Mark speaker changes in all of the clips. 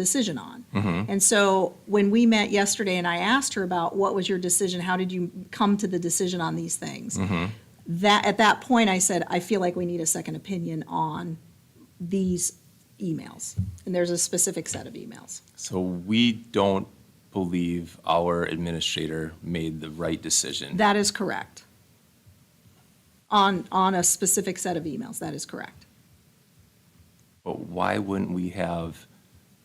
Speaker 1: decision on. And so when we met yesterday and I asked her about what was your decision, how did you come to the decision on these things? That, at that point, I said, I feel like we need a second opinion on these emails. And there's a specific set of emails.
Speaker 2: So we don't believe our administrator made the right decision.
Speaker 1: That is correct. On, on a specific set of emails, that is correct.
Speaker 2: But why wouldn't we have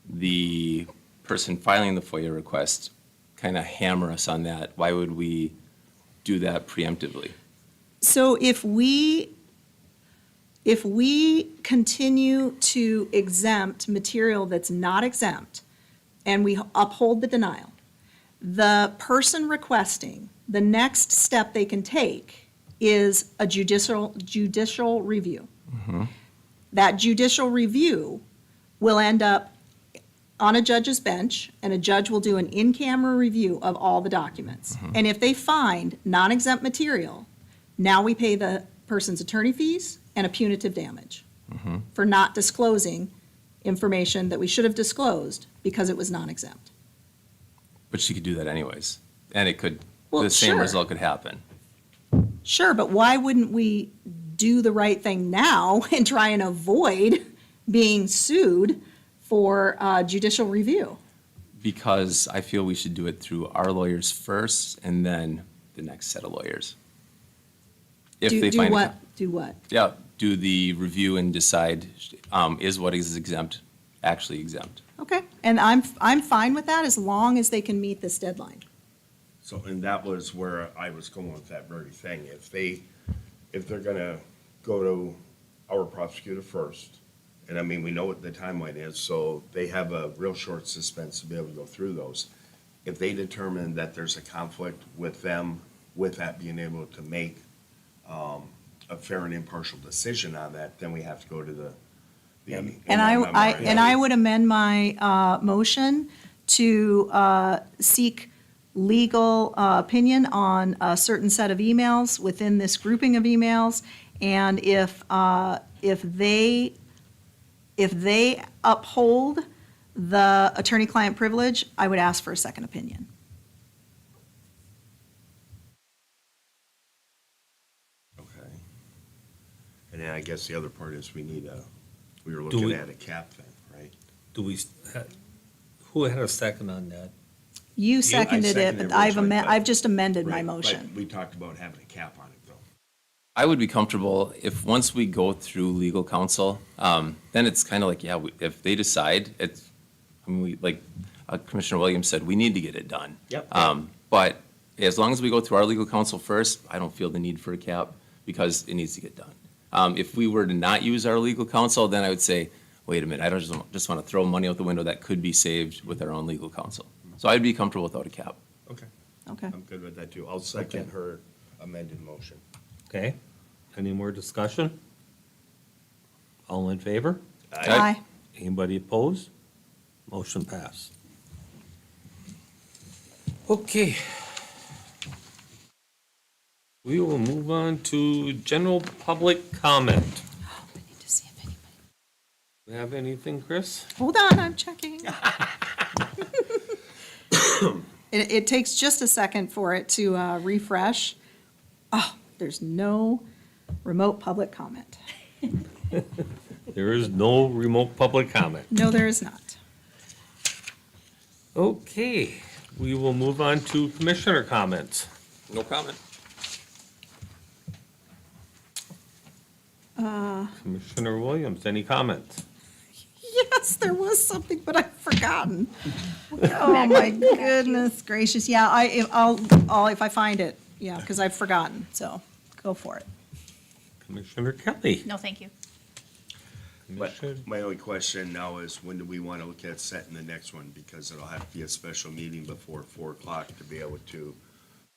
Speaker 2: the person filing the FOIA request kind of hammer us on that? Why would we do that preemptively?
Speaker 1: So if we, if we continue to exempt material that's not exempt, and we uphold the denial, the person requesting, the next step they can take is a judicial, judicial review. That judicial review will end up on a judge's bench, and a judge will do an in-camera review of all the documents. And if they find non-exempt material, now we pay the person's attorney fees and a punitive damage
Speaker 2: Mm-hmm.
Speaker 1: for not disclosing information that we should have disclosed because it was non-exempt.
Speaker 2: But she could do that anyways, and it could,
Speaker 1: Well,
Speaker 2: the same
Speaker 1: sure.
Speaker 2: result could happen.
Speaker 1: Sure, but why wouldn't we do the right thing now and try and avoid being sued for uh, judicial review?
Speaker 2: Because I feel we should do it through our lawyers first and then the next set of lawyers. If
Speaker 1: Do
Speaker 2: they
Speaker 1: do
Speaker 2: find.
Speaker 1: what? Do what?
Speaker 2: Yeah, do the review and decide, um, is what is exempt actually exempt?
Speaker 1: Okay, and I'm, I'm fine with that as long as they can meet this deadline.
Speaker 3: So, and that was where I was going with that very thing. If they, if they're gonna go to our prosecutor first, and I mean, we know what the timeline is, so they have a real short suspense to be able to go through those. If they determine that there's a conflict with them, with that being able to make, um, a fair and impartial decision on that, then we have to go to the. the-
Speaker 1: And I, I,
Speaker 3: MMR.
Speaker 1: and I would amend my, uh, motion to, uh, seek legal, uh, opinion on a certain set of emails within this grouping of emails. And if, uh, if they, if they uphold the attorney-client privilege, I would ask for a second opinion.
Speaker 3: Okay. And then I guess the other part is we need a, we were
Speaker 4: Do
Speaker 3: looking
Speaker 4: we-
Speaker 3: at a cap thing, right?
Speaker 4: Do we, who had a second on that?
Speaker 1: You seconded it,
Speaker 3: seconded
Speaker 1: but I've
Speaker 3: originally,
Speaker 1: amended,
Speaker 3: but-
Speaker 1: I've just amended my
Speaker 3: Right, but
Speaker 1: motion.
Speaker 3: We talked about having a cap on it, though.
Speaker 2: I would be comfortable if, once we go through legal counsel, um, then it's kind of like, yeah, we- if they decide, it's, I mean, we, like uh, Commissioner Williams said, we need to get it done.
Speaker 3: Yep.
Speaker 2: Um, but as long as we go through our legal counsel first, I don't feel the need for a cap because it needs to get done. Um, if we were to not use our legal counsel, then I would say, wait a minute, I don't just, just want to throw money out the window that could be saved with our own legal counsel. So I'd be comfortable without a cap.
Speaker 3: Okay,
Speaker 1: Okay.
Speaker 3: I'm good with that, too. I'll second
Speaker 4: Okay.
Speaker 3: her amended motion.
Speaker 4: Okay, any more discussion? All in favor?
Speaker 1: Aye.
Speaker 4: Anybody opposed? Motion pass. Okay. We will move on to general public comment.
Speaker 1: I need to see if anybody.
Speaker 4: Do you have anything, Chris?
Speaker 1: Hold on, I'm checking. It, it takes just a second for it to uh, refresh. Oh, there's no remote public comment.
Speaker 4: There is no remote public comment.
Speaker 1: No, there is not.
Speaker 4: Okay, we will move on to commissioner comments.
Speaker 2: No comment.
Speaker 4: Commissioner Williams, any comments?
Speaker 1: Yes, there was something, but I've forgotten. Oh, my goodness gracious. Yeah, I, if- I'll, I'll, if I find it, yeah, because I've forgotten, so go for it.
Speaker 4: Commissioner Kelly?
Speaker 5: No, thank you.
Speaker 3: But
Speaker 4: Commissioner-
Speaker 3: my only question now is, when do we want to look at setting the next one? Because it'll have to be a special meeting before four o'clock to be able to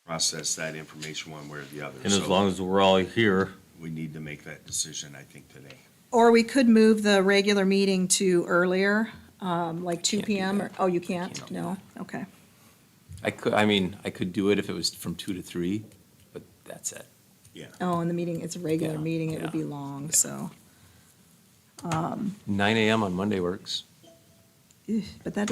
Speaker 3: process that information one way or the other.
Speaker 4: And as
Speaker 3: So
Speaker 4: long as we're all here,
Speaker 3: We need to make that decision, I think, today.
Speaker 1: Or we could move the regular meeting to earlier, um, like 2
Speaker 2: Can't do
Speaker 1: PM. or-
Speaker 2: that.
Speaker 1: Oh, you can't?
Speaker 2: Can't do
Speaker 1: No? Okay.
Speaker 2: I could, I mean, I could do it if it was from two to three, but that's it.
Speaker 3: Yeah.
Speaker 1: Oh, and the meeting, it's a regular
Speaker 2: Yeah,
Speaker 1: meeting, it would be
Speaker 2: yeah,
Speaker 1: long, so.
Speaker 2: Nine AM on Monday works.
Speaker 1: But that doesn't